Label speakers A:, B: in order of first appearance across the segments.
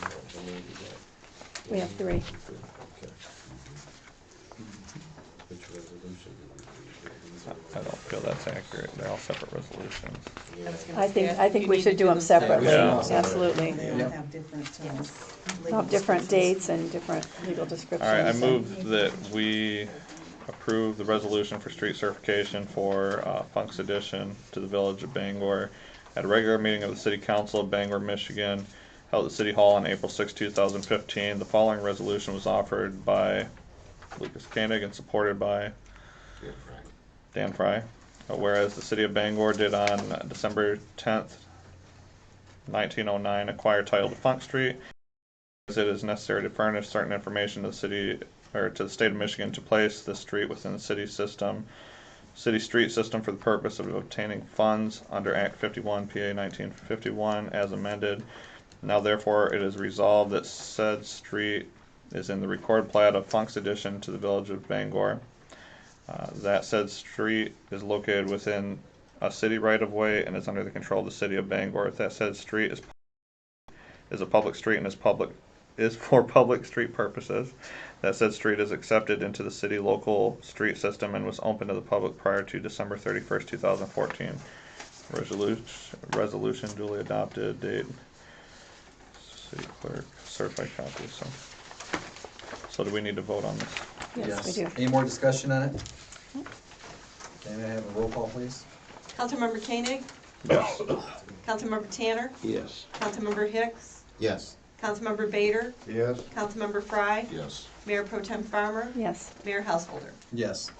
A: How many do you got?
B: We have three.
A: Three, okay. Which resolution did we do?
C: I don't feel that's accurate. They're all separate resolutions.
A: Yeah.
D: was gonna
B: I think,
D: say,
B: I think
D: you
B: we
D: need
B: should
D: to
B: do them separately,
C: Yeah.
B: absolutely.
D: They all have different, um, legal
B: Have different
D: descriptions.
B: dates and different legal
C: All
B: descriptions.
C: right, I
B: and-
C: move that we approve the resolution for street certification for uh, Funk's addition to the village of Bangor at a regular meeting of the City Council of Bangor, Michigan, held at City Hall on April 6, 2015. The following resolution was offered by Lucas Koenig and supported by
A: Yeah, Frank.
C: Dan Fry. Uh, Whereas the city of Bangor did on uh, December tenth, nineteen oh nine, acquire title to Funk Street. As it is necessary to furnish certain information to the city, or to the state of Michigan to place the street within the city system, city street system for the purpose of obtaining funds under Act fifty-one, PA nineteen fifty-one, as amended. Now therefore it is resolved that said street is in the record plat of Funk's addition to the village of Bangor. Uh, That said street is located within a city right-of-way and is under the control of the city of Bangor. That said street is, is a public street and is public, is for public street purposes. That said street is accepted into the city local street system and was open to the public prior to December thirty-first, two thousand fourteen. Resolution, resolution duly adopted, date, city clerk, certified copy, so. So do we need to vote on this?
B: Yes, we do.
E: Any more discussion on it? Can I have a roll call, please?
F: Councilmember Koenig,
C: Yes.
F: Councilmember Tanner,
A: Yes.
F: Councilmember Hicks,
A: Yes.
F: Councilmember Bader,
A: Yes.
F: Councilmember Frye,
A: Yes.
F: Mayor Pro Tem Farmer,
B: Yes,
F: Mayor Householder.
E: Yes.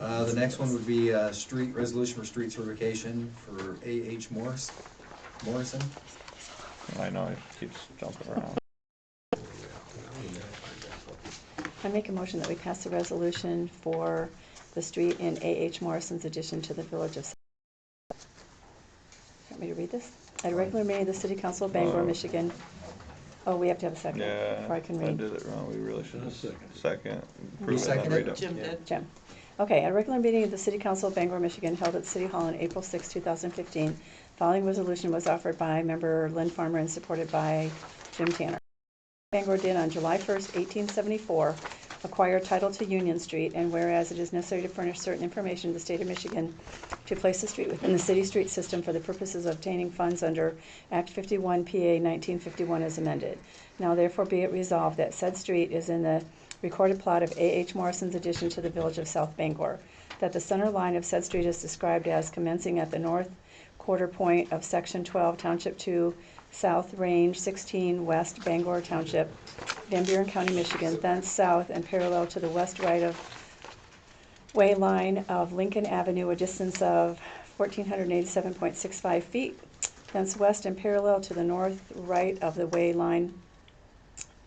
E: Uh, the next one would be, uh, street, resolution for street certification for A H Morris, Morrison.
C: I know, it keeps jumping around.
B: I make a motion that we pass the resolution for the street in A.H. Morrison's addition to the village of. Want me to read this? At a regular meeting of the City Council of Bangor,
C: Uh,
B: Michigan. Oh, we have to have a second
C: Yeah,
B: before I
C: I
B: can read.
C: did it wrong, we really should have second.
E: You
C: approve it and then read
E: seconded?
C: it.
F: Jim did.
B: Jim. Okay, at a regular meeting of the City Council of Bangor, Michigan, held at City Hall on April 6, 2015, following resolution was offered by member Lynn Farmer and supported by Jim Tanner. Bangor did on July 1st, 1874, acquire title to Union Street, and whereas it is necessary to furnish certain information to the state of Michigan to place the street within the city street system for the purposes of obtaining funds under Act 51 PA 1951 as amended. Now therefore be it resolved that said street is in the recorded plot of A.H. Morrison's addition to the village of South Bangor, that the center line of said street is described as commencing at the north quarter point of Section 12, Township 2, South Range 16, West Bangor Township, Van Buren County, Michigan, thence south and parallel to the west right of way line of Lincoln Avenue, a distance of 1,487.65 feet, thence west and parallel to the north right of the way line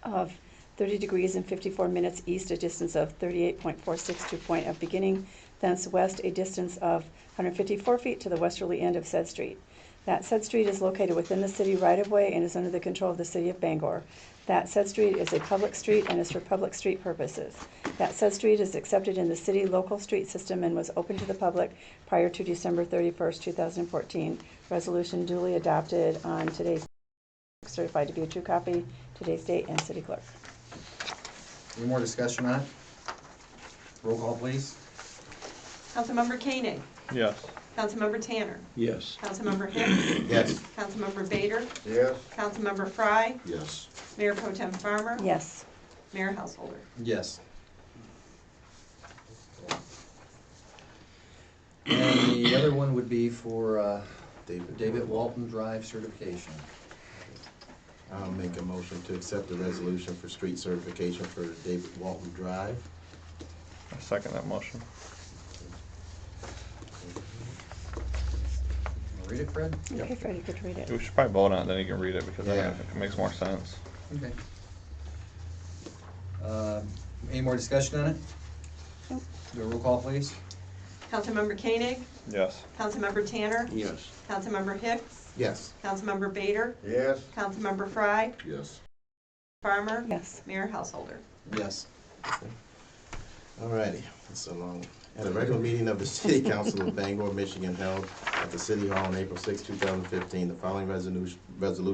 B: of 30 degrees and 54 minutes east, a distance of 38.462 point of beginning, thence west, a distance of 154 feet to the westerly end of said street. That said street is located within the city right-of-way and is under the control of the city of Bangor. That said street is a public street and is for public street purposes. That said street is accepted in the city local street system and was open to the public prior to December 31st, 2014. Resolution duly adopted on today's, certified to be a true copy, today's date, and city clerk.
E: Any more discussion on it? Roll call, please.
F: Councilmember Koenig,
C: Yes,
F: Councilmember Tanner,
A: Yes.
F: Councilmember Hicks,
A: Yes.
F: Councilmember Bader,
A: Yes.
F: Councilmember Frye,
A: Yes.
F: Mayor Pro Tem Farmer,
B: Yes.
F: Mayor Householder.
E: Yes. And the other one would be for, uh,
A: David.
E: David Walton Drive certification.
A: I'll make a motion to accept the resolution for street certification for David Walton Drive.
C: I second that motion.
E: Read it, Fred?
B: Okay, Fred, you could read it.
C: We should probably vote on it, then you can read it, because I
E: Yeah.
C: think it makes more sense.
E: Okay. Um, Any more discussion on it?
B: Nope.
E: Do a roll call, please.
F: Councilmember Koenig,
C: Yes,
F: Councilmember Tanner,
A: Yes.
F: Councilmember Hicks,
A: Yes.
F: Councilmember Bader,
A: Yes.
F: Councilmember Frye,
A: Yes.
F: Farmer,
B: Yes.
F: Mayor Householder.
E: Yes.
A: Alrighty, that's a long one. At a regular meeting of the City Council of Bangor, Michigan held at the City Hall on April 6, 2015, the following resolution, resolution